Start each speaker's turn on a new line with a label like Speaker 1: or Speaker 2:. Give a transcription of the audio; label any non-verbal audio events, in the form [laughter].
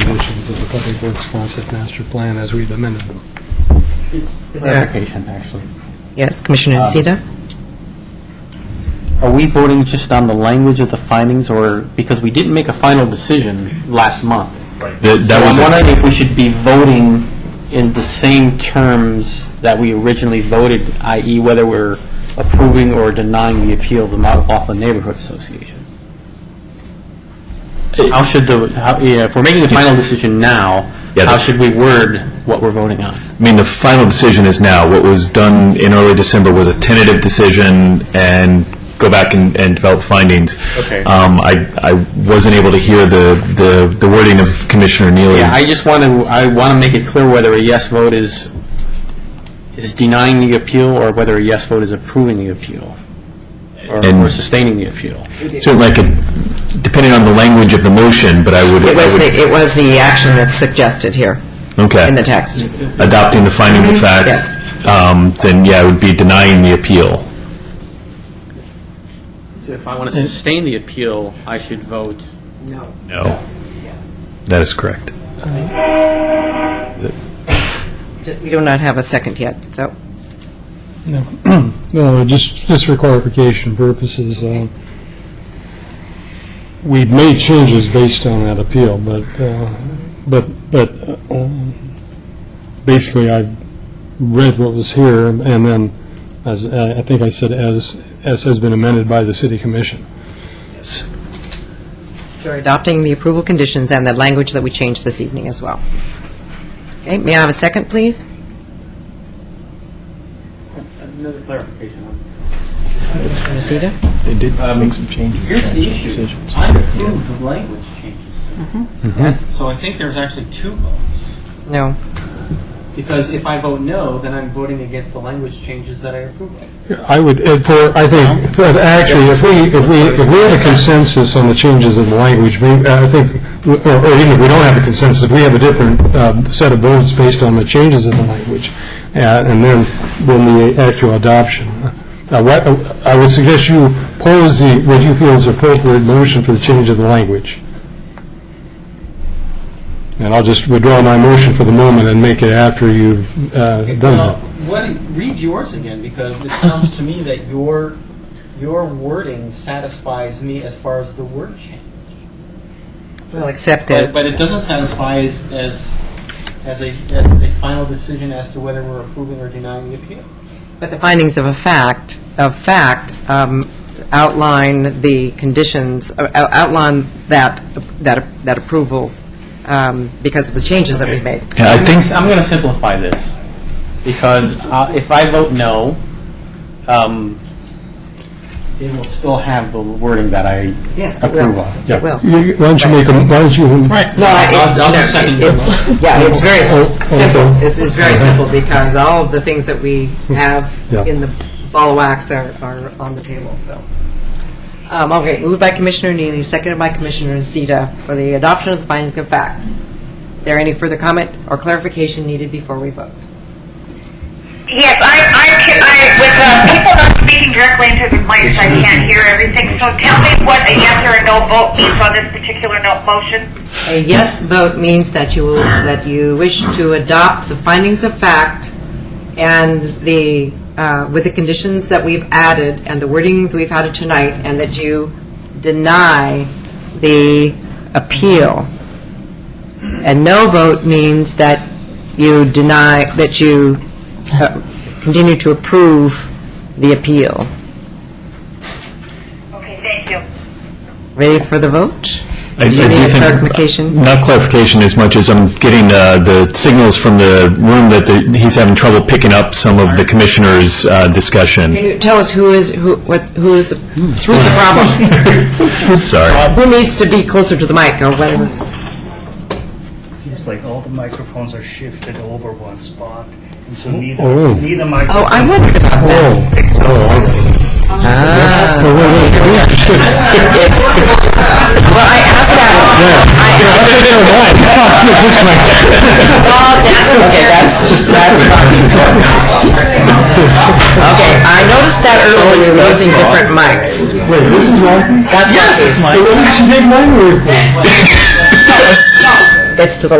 Speaker 1: conditions of the Public Works Concept Master Plan as we've amended them.
Speaker 2: Clarification, actually.
Speaker 3: Yes, Commissioner Nocita?
Speaker 2: Are we voting just on the language of the findings, or, because we didn't make a final decision last month?
Speaker 4: That that was
Speaker 2: So I'm
Speaker 4: a-
Speaker 2: wondering if we should be voting in the same terms that we originally voted, i.e. whether we're approving or denying the appeal of the Mount Laughlin Neighborhood Association? How should the, how, yeah, if we're making a final decision now,
Speaker 4: Yeah,
Speaker 2: how
Speaker 4: the-
Speaker 2: should we word what we're voting on?
Speaker 4: I mean, the final decision is now. What was done in early December was a tentative decision and go back and, and develop findings.
Speaker 2: Okay.
Speaker 4: Um, I, I wasn't able to hear the, the, the wording of Commissioner Neely.
Speaker 2: Yeah, I just want to, I want to make it clear whether a yes vote is, is denying the appeal or whether a yes vote is approving the appeal or
Speaker 4: And-
Speaker 2: or sustaining the appeal.
Speaker 4: Certainly, I could, depending on the language of the motion, but I would. I
Speaker 3: It was
Speaker 4: would-
Speaker 3: the, it was the action that's suggested here
Speaker 4: Okay.
Speaker 3: in the text.
Speaker 4: Adopting the findings of fact.
Speaker 3: yes.
Speaker 4: Um, then, yeah, it would be denying the appeal.
Speaker 2: So if I want to sustain the appeal, I should vote?
Speaker 4: No. That is correct.
Speaker 3: We do not have a second yet, so,
Speaker 1: No, [clears throat] No, Uh, just, just for clarification purposes, uh, we made changes based on that appeal, but, uh, but, but uh, um, basically, I read what was here, and then, as, I I think I said, as, as has been amended by the city commission.
Speaker 4: Yes.
Speaker 3: we're adopting the approval conditions and the language that we changed this evening as well. Okay, may I have a second, please?
Speaker 2: Another clarification.
Speaker 3: Nocita?
Speaker 4: They did
Speaker 5: Um,
Speaker 4: make some changes.
Speaker 2: Here's the issue. I approved the language changes to
Speaker 4: Mm-hmm.
Speaker 3: Yes?
Speaker 2: So I think there's actually two votes.
Speaker 3: No.
Speaker 2: Because if I vote no, then I'm voting against the language changes that I approve of.
Speaker 1: I would, if for, I think, but actually, if we, if we, if we had a consensus on the changes in the language, we- I think, or or even if we don't have a consensus, if we have a different um, set of votes based on the changes in the language, uh, and then, then the actual adoption. Uh, what- I would suggest you pose the, what you feel is appropriate motion for the change of the language. And I'll just withdraw my motion for the moment and make it after you've uh, done
Speaker 5: Well,
Speaker 1: that.
Speaker 5: what, read yours again, because it sounds to me that your, your wording satisfies me as far as the word change.
Speaker 3: We'll accept
Speaker 5: But,
Speaker 3: it.
Speaker 5: but it doesn't satisfy as, as, as a, as a final decision as to whether we're approving or denying the appeal.
Speaker 3: But the findings of a fact, of fact, um, outline the conditions, uh, out- outline that, that that approval um, because of the changes that we made.
Speaker 4: Yeah, I think,
Speaker 2: I'm going to simplify this, because uh, if I vote no, um, it will still have the wording that I
Speaker 3: Yes, it
Speaker 2: approve
Speaker 3: will.
Speaker 2: of.
Speaker 1: Yeah.
Speaker 3: Well-
Speaker 1: You- Why don't you make, a why don't you...
Speaker 2: Right.
Speaker 3: No, I-
Speaker 2: I'll- I'll
Speaker 3: no,
Speaker 2: just second your
Speaker 3: it's- Yeah, it's very
Speaker 1: Oh, oh,
Speaker 3: s-
Speaker 1: oh,
Speaker 3: simple.
Speaker 1: oh.
Speaker 3: It's, it's very simple because all of the things that we have
Speaker 1: Yeah.
Speaker 3: in the ball of wax are, are on the table, so. Um, okay, moved by Commissioner Neely, seconded by Commissioner Zeta for the adoption of the findings of fact. There any further comment or clarification needed before we vote?
Speaker 6: Yes, I, I, ca- I, with uh, people not speaking directly into the mics, I can't hear everything. So tell me what a yes or a no vote means on this particular no motion.
Speaker 3: A yes vote means that you, will- that you wish to adopt the findings of fact and the, uh, with the conditions that we've added and the wording that we've added tonight, and that you deny the appeal. And no vote means that you deny, that you uh, continue to approve the appeal.
Speaker 6: Okay, thank you.
Speaker 3: Ready for the vote?
Speaker 4: I I
Speaker 3: Do
Speaker 4: do
Speaker 3: you
Speaker 4: think...
Speaker 3: need clarification?
Speaker 4: Not clarification as much as I'm getting uh, the signals from the room that the- he's having trouble picking up some of the commissioners' uh, discussion.
Speaker 3: Can you tell us who is, who, what, who is, the- who's the problem?
Speaker 4: Sorry.
Speaker 3: Who needs to be closer to the mic or whatever?
Speaker 7: Seems like all the microphones are shifted over one spot, and so neither,
Speaker 1: Oh.
Speaker 7: neither microphone.
Speaker 3: Oh, I wondered about that.
Speaker 1: Oh,
Speaker 3: Ah.
Speaker 1: oh, wait, wait, wait.
Speaker 3: It's- Well, I asked
Speaker 1: [laughs]
Speaker 3: that. [laughs] I- Well, that- Okay, that's, that's fine. Okay, I noticed that earlier, was using different mics.
Speaker 1: Wait, this is mine?
Speaker 3: That's what it is.
Speaker 1: Hey, what did you take mine with?
Speaker 8: that's to the